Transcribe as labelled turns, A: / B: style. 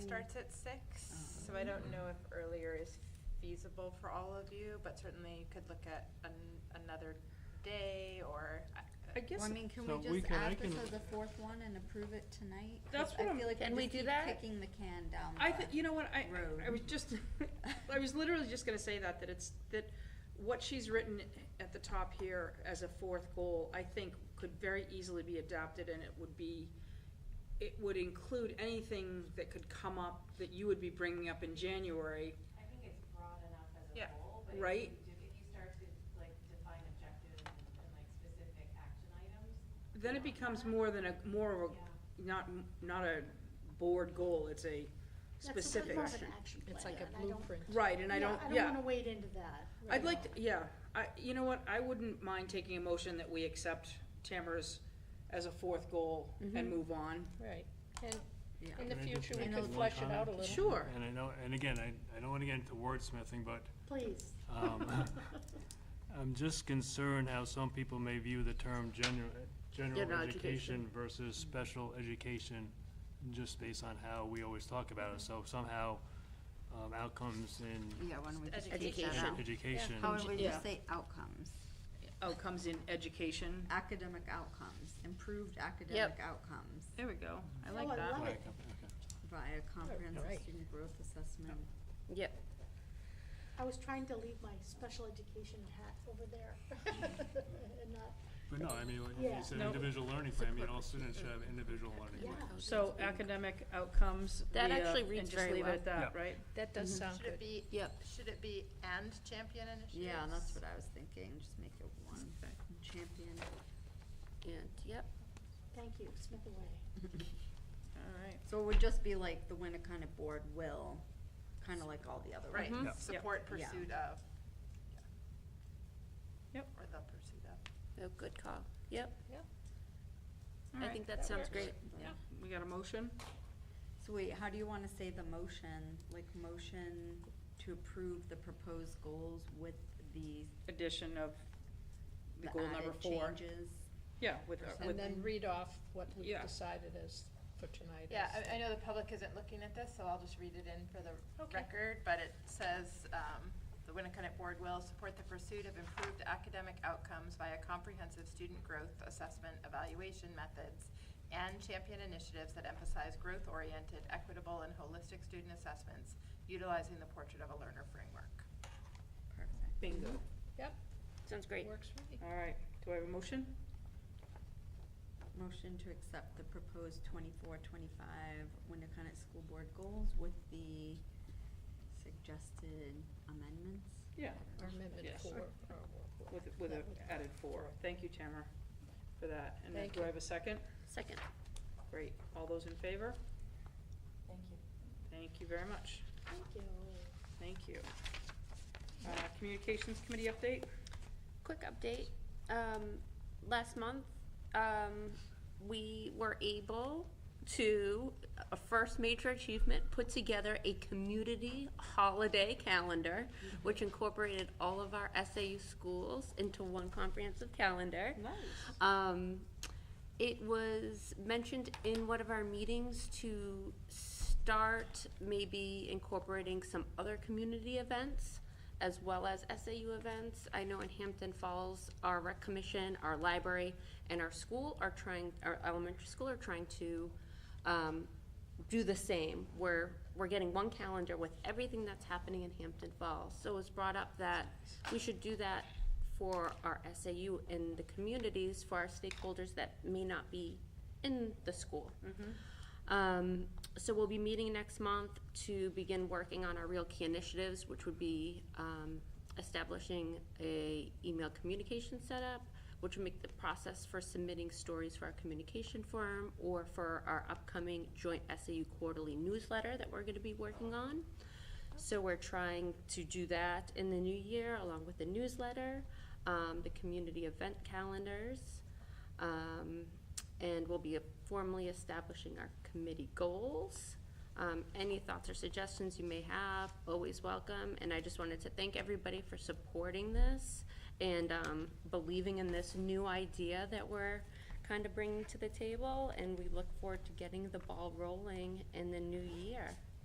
A: starts at six, so I don't know if earlier is feasible for all of you, but certainly you could look at an, another day or. uh,
B: I guess
C: Well, I mean, can
D: So
C: we
D: we
C: just
D: can- I
C: add this
D: can-
C: as a fourth one and approve it tonight? 'Cause
B: That's what I'm-
C: I feel like
E: Can
C: we
E: we
C: just
E: do
C: keep
E: that?
C: Kicking the can down the.
B: I think you know what I I
C: road.
B: was just I was literally just gonna say that that it's that what she's written at the top here as a fourth goal I think could very easily be adapted and it would be it would include anything that could come up that you would be bringing up in January.
F: I think it's broad enough as a
A: Yeah.
F: whole, but if
B: Right.
F: you, do- if you start to like define objectives and and, like specific action items,
B: Then it becomes more than a more of
F: yeah.
B: a not not a board goal. It's a specific.
G: That's a bit more of an action plan.
E: It's like
G: and
E: a
G: I don't-
E: blueprint.
B: Right, and I don't.
G: I
B: yeah.
G: don't wanna wade into that.
B: I'd
G: right
B: like,
G: now.
B: to- yeah, I, you know what, I wouldn't mind taking a motion that we accept Tamara's as a fourth goal and
E: Mm-hmm.
B: move on.
E: Right, and
C: Yeah.
E: in the
D: Can I just
E: future, we
D: make
E: could
D: one
E: flesh it out a
D: comment?
E: little.
B: Sure,
D: And I know, and again, I, I don't wanna get into wordsmithing, but,
G: Please.
D: um, I'm just concerned how some people may view the term general, general
C: General
D: education versus special education, just based on how we always talk about it, so somehow, um, outcomes in
C: Yeah, why don't we just take that
A: Education.
C: out?
D: education.
C: How would we
B: Yeah.
C: just say outcomes,
B: outcomes Oh, in education.
C: academic outcomes, improved academic outcomes
B: There we go, I
G: Oh,
B: like
G: I
B: that.
G: love
D: Like,
G: it.
D: okay.
C: via comprehensive
E: Right.
C: student growth assessment.
E: Yep.
G: I was trying to leave my special education hat over there and not,
D: But no, I mean, when you
G: Yeah.
D: said
B: No.
D: individual learning plan, I mean, all students should have individual learning.
G: yeah.
D: plan.
B: So academic outcomes,
E: That
B: we, uh,
E: actually reads
B: and just
E: very
B: leave it
E: well.
B: at that,
D: Yeah.
B: right?
E: That does sound
A: Mm-hmm. Should it
E: good.
A: be,
C: Yep.
A: should it be and champion initiatives?
C: Yeah, that's what I was thinking, just make it one
B: Okay.
C: champion. And, yep.
G: Thank you, Smith away.
B: All right,
C: So it would just be like the Winnicott Board will, kinda like all the other ones.
H: Mm-hmm.
A: Right,
D: Yeah.
A: support pursuit of.
B: Yep.
A: Or the pursuit of.
H: Oh, good call. Yep,
B: all
H: I
B: right,
H: think that sounds
B: works.
H: great.
C: Yeah.
B: we got a motion?
C: So wait, how do you wanna say the motion, like motion to approve the proposed goals with the,
B: Addition of the
C: the
B: goal number
C: added
B: four.
C: changes?
B: Yeah, with,
C: Or
B: with,
E: And then read off what we've
B: Yeah.
E: decided as, for tonight.
A: Yeah,
E: as-
A: I, I know the public isn't looking at this, so I'll just read it in for the
E: Okay.
A: record, but it says, um, the Winnicott Board will support the pursuit of improved academic outcomes via comprehensive student growth assessment evaluation methods and champion initiatives that emphasize growth-oriented, equitable, and holistic student assessments utilizing the Portrait of a Learner framework.
C: Perfect.
B: bingo.
E: Yep,
H: Sounds great.
E: works for me.
B: All right, do I have a motion?
C: Motion to accept the proposed 24-25 Winnicott School Board goals with the suggested amendments.
B: Yeah.
E: Or Amendment
B: Yes.
E: four. or what-
B: With, with a
E: That would-
B: added four. Thank you, Tamara, for that. And then
E: Thank
B: do I have a second?
H: Second.
B: Great. All those in favor? Thank you. Thank you very much.
G: Thank you.
B: Thank you. Uh, Communications Committee update?
H: Quick update. Um, last month, um, we were able to, a first major achievement, put together a community holiday calendar, which incorporated all of our SAU schools into one comprehensive calendar.
B: Nice.
H: Um, it was mentioned in one of our meetings to start maybe incorporating some other community events as well as SAU events. I know in Hampton Falls, our rec commission, our library, and our school are trying, our elementary school are trying to, um, do the same. We're, we're getting one calendar with everything that's happening in Hampton Falls. So it was brought up that we should do that for our SAU and the communities, for our stakeholders that may not be in the school. Um, so we'll be meeting next month to begin working on our real key initiatives, which would be, um, establishing a email communication setup, which would make the process for submitting stories for our communication forum or for our upcoming joint SAU quarterly newsletter that we're gonna be working on. So we're trying to do that in the new year, along with the newsletter, um, the community event calendars. Um, and we'll be formally establishing our committee goals. Um, any thoughts or suggestions you may have, always welcome. And I just wanted to thank everybody for supporting this and, um, believing in this new idea that we're kind of bringing to the table. And we look forward to getting the ball rolling in the new year.